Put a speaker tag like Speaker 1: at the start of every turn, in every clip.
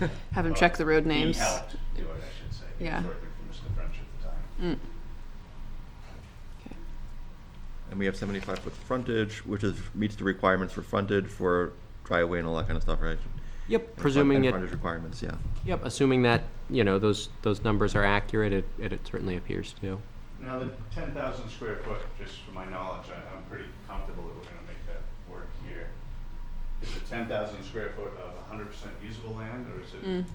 Speaker 1: Have him check the road names.
Speaker 2: He helped do it, I should say. He
Speaker 1: Yeah.
Speaker 2: was working for Mr. French at the time.
Speaker 3: And we have seventy-five foot frontage, which is, meets the requirements for frontage for driveway and all that kind of stuff, right? And
Speaker 4: Yep,
Speaker 3: front-
Speaker 4: presuming
Speaker 3: and
Speaker 4: it,
Speaker 3: Frontage requirements, yeah.
Speaker 4: yep, assuming that, you know, those, those numbers are accurate, it, it certainly appears to.
Speaker 2: Now, the ten thousand square foot, just from my knowledge, I, I'm pretty comfortable that we're gonna make that work here. Is it ten thousand square foot of hundred percent usable land, or is
Speaker 1: Mm.
Speaker 2: it?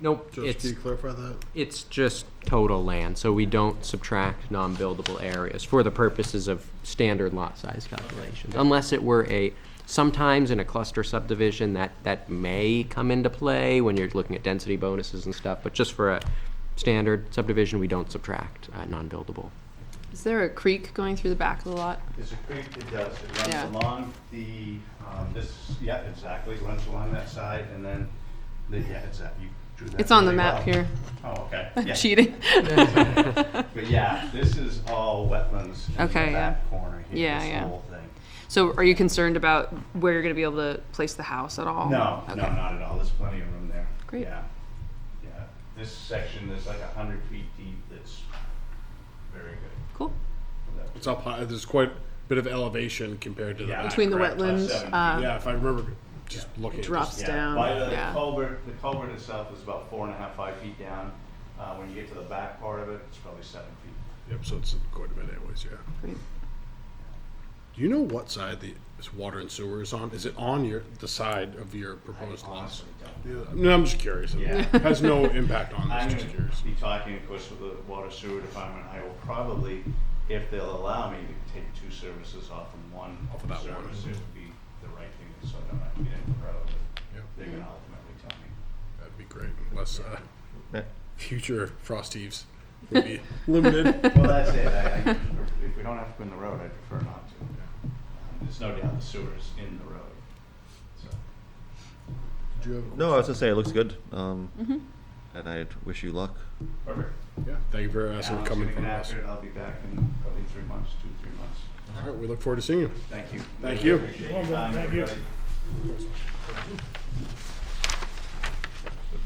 Speaker 4: Nope,
Speaker 5: Just
Speaker 4: it's,
Speaker 5: can you clarify that?
Speaker 4: it's just total land, so we don't subtract non-buildable areas for the purposes of standard lot size calculations. Unless it were a, sometimes in a cluster subdivision, that, that may come into play when you're looking at density bonuses and stuff, but just for a standard subdivision, we don't subtract, uh, non-buildable.
Speaker 1: Is there a creek going through the back of the lot?
Speaker 2: There's a creek that does, it
Speaker 1: Yeah.
Speaker 2: runs along the, um, this, yeah, exactly, it runs along that side, and then, the, yeah, it's that, you drew that
Speaker 1: It's on the
Speaker 2: really
Speaker 1: map
Speaker 2: well.
Speaker 1: here.
Speaker 2: Oh, okay,
Speaker 1: I'm
Speaker 2: yeah.
Speaker 1: cheating.
Speaker 2: But yeah, this is all wetlands in the
Speaker 1: Okay, yeah.
Speaker 2: back corner here,
Speaker 1: Yeah,
Speaker 2: this
Speaker 1: yeah.
Speaker 2: whole thing.
Speaker 1: so, are you concerned about where you're going to be able to place the house at all?
Speaker 2: No,
Speaker 1: Oh, Okay.
Speaker 2: no, not at all. There's plenty of room there.
Speaker 1: Great.
Speaker 2: Yeah. Yeah. This section is like a hundred feet deep. That's very good.
Speaker 1: Cool.
Speaker 5: It's up high. There's quite a bit of elevation compared to the
Speaker 2: Yeah.
Speaker 5: back.
Speaker 1: Between the
Speaker 2: Correct, plus
Speaker 1: wetlands,
Speaker 2: seven.
Speaker 1: uh,
Speaker 5: Yeah, if I remember, just looking. at
Speaker 1: drops
Speaker 5: this.
Speaker 2: Yeah.
Speaker 1: down.
Speaker 2: By the
Speaker 1: yeah.
Speaker 2: culvert, the culvert itself is about four and a half, five feet down. Uh, when you get to the back part of it, it's probably seven feet.
Speaker 5: Yep, so it's quite a bit anyways, yeah.
Speaker 1: Great.
Speaker 5: Do you know what side the this water and sewer is on? Is it on your, the side of your proposed lots?
Speaker 2: Honestly, don't.
Speaker 5: Yeah, No, I'm just curious.
Speaker 2: Yeah.
Speaker 5: It has no impact on
Speaker 2: I'm
Speaker 5: this,
Speaker 2: going
Speaker 5: just curious.
Speaker 2: to be talking, of course, with the water sewer department. I will probably, if they'll allow me to take two services off of one
Speaker 5: Off of that
Speaker 2: service,
Speaker 5: one.
Speaker 2: it would be the right thing, so I don't have to get in the road.
Speaker 5: Yeah,
Speaker 2: They're going to ultimately tell me.
Speaker 5: That'd be great, unless uh,
Speaker 3: Yeah.
Speaker 5: future frost heaves would be limited.
Speaker 2: Well, that's it. I, I, if we don't have to go in the road, I prefer not to. Um, There's no doubt the sewer is in the road. So,
Speaker 5: Do you have-
Speaker 3: No, I was gonna say, it looks good, um, and I wish you luck.
Speaker 2: perfect.
Speaker 5: Yeah, thank you very much
Speaker 2: Alan's
Speaker 5: for coming
Speaker 2: gonna
Speaker 5: from
Speaker 2: get
Speaker 5: us.
Speaker 2: after it. I'll be back in probably three months, two, three months.
Speaker 5: All right, we look forward to seeing you.
Speaker 2: Thank you.
Speaker 5: Thank you.
Speaker 2: Appreciate your time, everybody.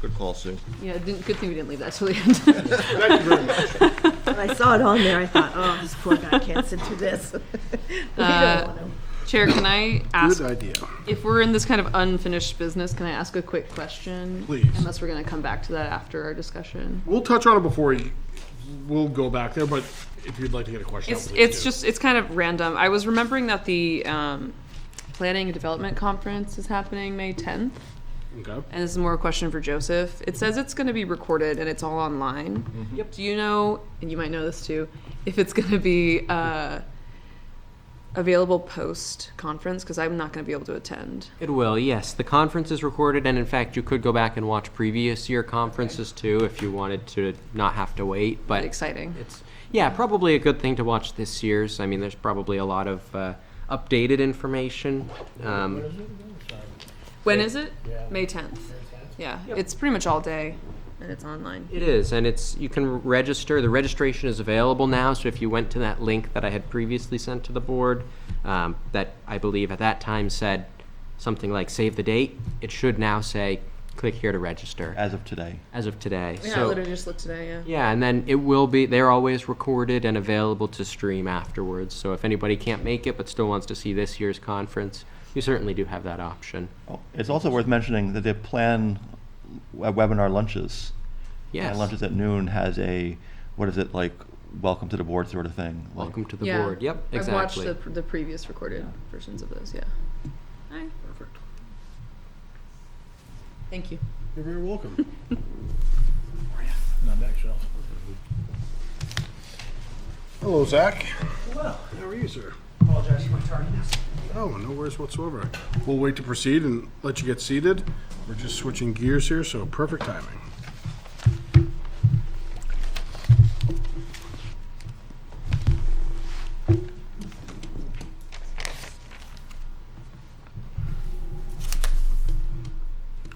Speaker 3: Good call, Sue.
Speaker 1: Yeah, didn't, good thing we didn't leave that till the end.
Speaker 5: Thank you very much.
Speaker 6: When I saw it on there, I thought, oh, this poor guy can't sit through this. we
Speaker 1: Uh,
Speaker 6: don't want him.
Speaker 1: Chair, can I ask
Speaker 5: Good idea.
Speaker 1: if we're in this kind of unfinished business? Can I ask a quick question?
Speaker 5: Please.
Speaker 1: Unless we're going to come back to that after our discussion.
Speaker 5: We'll touch on it before you, we'll go back there, but if you'd like to get a question out,
Speaker 1: It's
Speaker 5: please
Speaker 1: it's
Speaker 5: do.
Speaker 1: just it's kind of random. I was remembering that the um, planning and development conference is happening May tenth.
Speaker 5: Okay.
Speaker 1: And this is more a question for Joseph. It says it's going to be recorded and it's all online.
Speaker 4: Mm-hmm.
Speaker 1: Yep. Do you know, and you might know this too, if it's going to be uh, available post conference? Because I'm not going to be able to attend.
Speaker 4: It will, yes. The conference is recorded, and in fact, you could go back and watch previous year conferences too if you wanted to not have to wait. But
Speaker 1: Exciting.
Speaker 4: It's yeah, probably a good thing to watch this year's. I mean, there's probably a lot of uh, updated information. Um,
Speaker 1: When is it? May 10th. Yeah, it's pretty much all day and it's online.
Speaker 4: it is, and it's you can register. The registration is available now, so if you went to that link that I had previously sent to the board, um, that I believe at that time said something like "save the date," it should now say "click here to register"
Speaker 3: As of today.
Speaker 4: as of today.
Speaker 1: Yeah, I
Speaker 4: so,
Speaker 1: literally just looked today, yeah.
Speaker 4: Yeah, and then it will be, they're always recorded and available to stream afterwards. So if anybody can't make it but still wants to see this year's conference, you certainly do have that option.
Speaker 3: Oh, It's also worth mentioning that they plan uh, webinar lunches.
Speaker 4: Yes.
Speaker 3: And lunches at noon has a, what is it, like, welcome to the board sort of thing. like-
Speaker 4: Welcome to the board. Yep, exactly.
Speaker 1: I've watched the, the previous recorded versions of those, yeah. All right.
Speaker 5: Perfect.
Speaker 1: Thank you.
Speaker 5: You're very welcome.
Speaker 7: on that shelf.
Speaker 5: Hello, Zach.
Speaker 7: Well,
Speaker 5: How are you, sir?
Speaker 7: apologize for my tardiness.
Speaker 5: Oh, no worries whatsoever. We'll wait to proceed and let you get seated. We're just switching gears here, so perfect timing.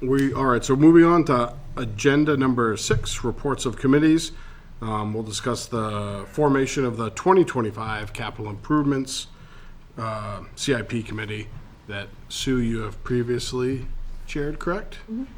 Speaker 5: We, all right, so moving on to agenda number six, reports of committees. Um, We'll discuss the formation of the 2025 capital improvements uh, CIP committee that Sue, you have previously chaired, correct?